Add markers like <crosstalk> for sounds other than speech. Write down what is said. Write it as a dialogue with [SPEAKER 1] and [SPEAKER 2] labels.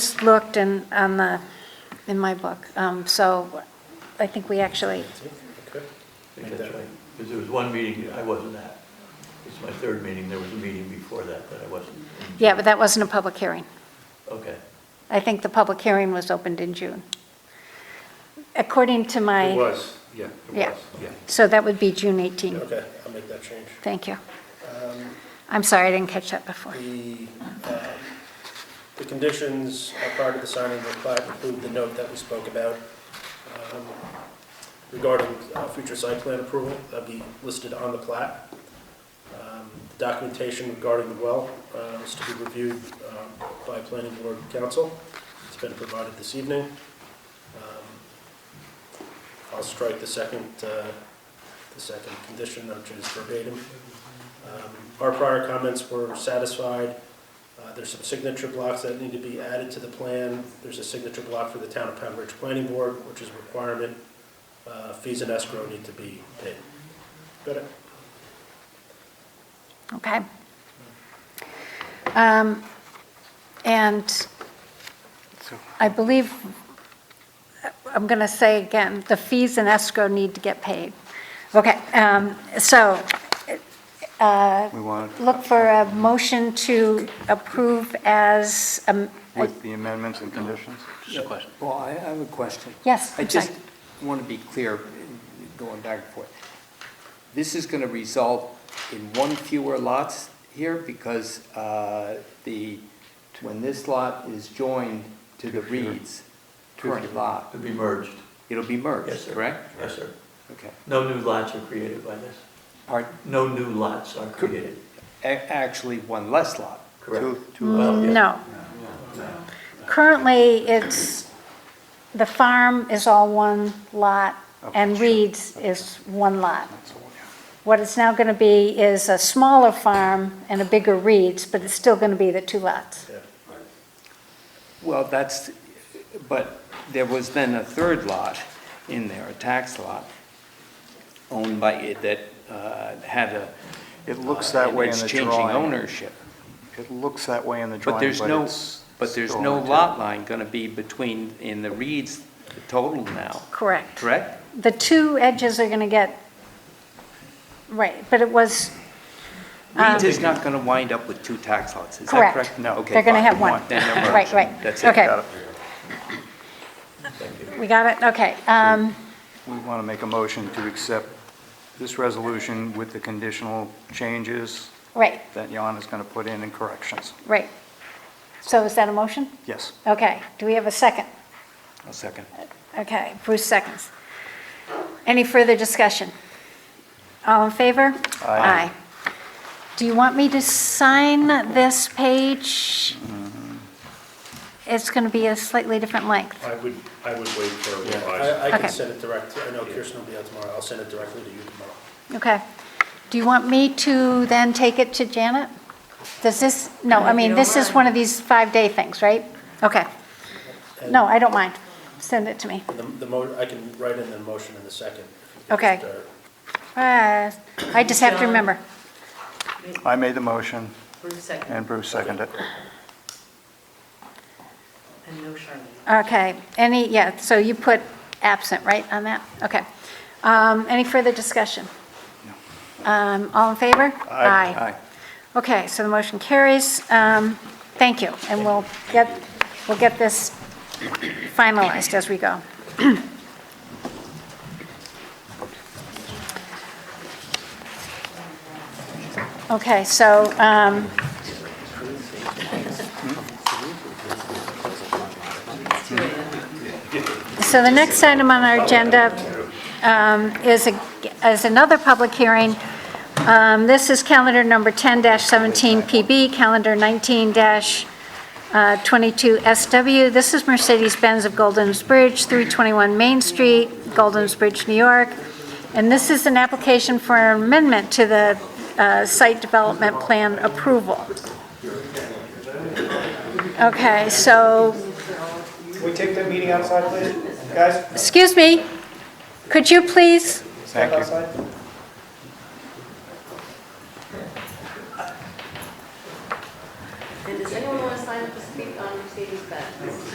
[SPEAKER 1] looked in, on the, in my book. Um, So I think we actually,
[SPEAKER 2] Okay.
[SPEAKER 3] I think that's right. Because there was one meeting, I wasn't at. It's my third meeting, there was a meeting before that that I wasn't. in.
[SPEAKER 1] yeah, but that wasn't a public hearing.
[SPEAKER 3] Okay.
[SPEAKER 1] I think the public hearing was opened in June. According to
[SPEAKER 4] It
[SPEAKER 1] my,
[SPEAKER 4] was, yeah, it
[SPEAKER 1] Yeah.
[SPEAKER 4] was, yeah.
[SPEAKER 1] so that would be June 18.
[SPEAKER 2] Okay, I'll make that change.
[SPEAKER 1] Thank you. I'm sorry, I didn't catch that before.
[SPEAKER 2] The, um, the conditions are part of the signing of the plat include the note that we spoke about um, regarding uh, future site plan approval, that'd be listed on the plat. Um, the Documentation regarding the well uh, is to be reviewed um, by planning board council, it's been provided this evening. Um, I'll strike the second, uh, the second condition, which is verbatim. Um, Our prior comments were satisfied. Uh, There's some signature blocks that need to be added to the plan. There's a signature block for the Town of Pound Ridge Planning Board, which is a requirement. Uh, Fees and escrow need to be paid. Got it?
[SPEAKER 1] Okay. Um, And I believe, I'm going to say again, the fees and escrow need to get paid. Okay, um, so
[SPEAKER 4] We want,
[SPEAKER 1] look for a motion to approve as, um,
[SPEAKER 4] with the amendments and conditions?
[SPEAKER 5] Just a question. Well, I I have a question.
[SPEAKER 1] yes,
[SPEAKER 5] I
[SPEAKER 1] I'm sorry.
[SPEAKER 5] just want to be clear, going back and forth. This is going to result in one fewer lots here because uh, the, when this lot is joined to the Reed's current lot,
[SPEAKER 3] To be merged.
[SPEAKER 5] it'll be
[SPEAKER 3] Yes,
[SPEAKER 5] merged,
[SPEAKER 3] sir.
[SPEAKER 5] correct?
[SPEAKER 3] Yes, sir.
[SPEAKER 5] Okay.
[SPEAKER 3] No new lots are created by this.
[SPEAKER 5] Pardon?
[SPEAKER 3] No new lots are created.
[SPEAKER 5] A- Actually, one less lot.
[SPEAKER 3] Correct. Mm.
[SPEAKER 5] Two- two uh, lots.
[SPEAKER 3] Well, yeah.
[SPEAKER 1] No. Currently, it's, the farm is all one lot, and Reed's is one lot. What it's now going to be is a smaller farm and a bigger Reed's, but it's still going to be the two lots.
[SPEAKER 5] Well, that's, but there was then a third lot in there, a tax lot, owned by, it that uh, had a. uh,
[SPEAKER 4] It looks that
[SPEAKER 5] and
[SPEAKER 4] way in
[SPEAKER 5] it's
[SPEAKER 4] the
[SPEAKER 5] Changing
[SPEAKER 4] drawing.
[SPEAKER 5] ownership.
[SPEAKER 4] It looks that way in the
[SPEAKER 5] But
[SPEAKER 4] drawing,
[SPEAKER 5] there's
[SPEAKER 4] but
[SPEAKER 5] no,
[SPEAKER 4] it's.
[SPEAKER 5] but there's
[SPEAKER 4] still
[SPEAKER 5] no
[SPEAKER 4] on the
[SPEAKER 5] lot line going to be between, in the Reeds total now,
[SPEAKER 1] Correct.
[SPEAKER 5] correct?
[SPEAKER 1] The two edges are going to get, right, but it was, um,
[SPEAKER 5] Reeds is not going to wind up with two tax lots, is that
[SPEAKER 1] Correct.
[SPEAKER 5] correct? No, okay.
[SPEAKER 1] They're gonna
[SPEAKER 5] fine.
[SPEAKER 1] have one.
[SPEAKER 5] Then they're merged.
[SPEAKER 1] right, right.
[SPEAKER 5] That's it.
[SPEAKER 1] Okay, we got it, okay. um,
[SPEAKER 4] We want to make a motion to accept this resolution with the conditional changes
[SPEAKER 1] Right,
[SPEAKER 4] that Jan is going to put in and corrections.
[SPEAKER 1] right. So is that a motion?
[SPEAKER 4] Yes.
[SPEAKER 1] Okay, do we have a second?
[SPEAKER 5] A second.
[SPEAKER 1] Okay, Bruce seconds. Any further discussion? All in favor?
[SPEAKER 4] Aye.
[SPEAKER 1] Aye. Do you want me to sign this page?
[SPEAKER 5] Mm-hmm.
[SPEAKER 1] It's going to be a slightly different length.
[SPEAKER 6] I would, I would wait for a revised.
[SPEAKER 2] I, I
[SPEAKER 1] Okay.
[SPEAKER 2] can send it direct, I know Kirsten will be out tomorrow, I'll send it directly to you tomorrow.
[SPEAKER 1] Okay. Do you want me to then take it to Janet? Does this, no, I mean, this is one of these five-day things, right? Okay. No, I don't mind. Send it to me.
[SPEAKER 2] And The, the mo, I can write in the motion in the second.
[SPEAKER 1] Okay. Uh, I just have to remember.
[SPEAKER 4] I made the motion,
[SPEAKER 7] Bruce second,
[SPEAKER 4] and Bruce seconded it.
[SPEAKER 7] and no Charlene.
[SPEAKER 1] Okay, any, yeah, so you put absent, right, on that? Okay. Um, Any further discussion? Um, All in favor?
[SPEAKER 5] Aye.
[SPEAKER 1] Okay, so the motion carries. Um, Thank you, and we'll get, we'll get this finalized as we go. <clears throat> Okay, so um, So the next item on our agenda um, is, a- is another public hearing. Um, This is calendar number 10-17 PB, calendar uh, 19-22 SW. This is Mercedes-Benz of Golden's Bridge, 321 Main Street, Golden's Bridge, New York. And this is an application for an amendment to the uh, site development plan approval. Okay, so
[SPEAKER 8] Can we take that meeting outside, please? Guys,
[SPEAKER 1] Excuse me, could you please?
[SPEAKER 8] step outside.
[SPEAKER 7] And does anyone want to sign up to speak on Mercedes-Benz?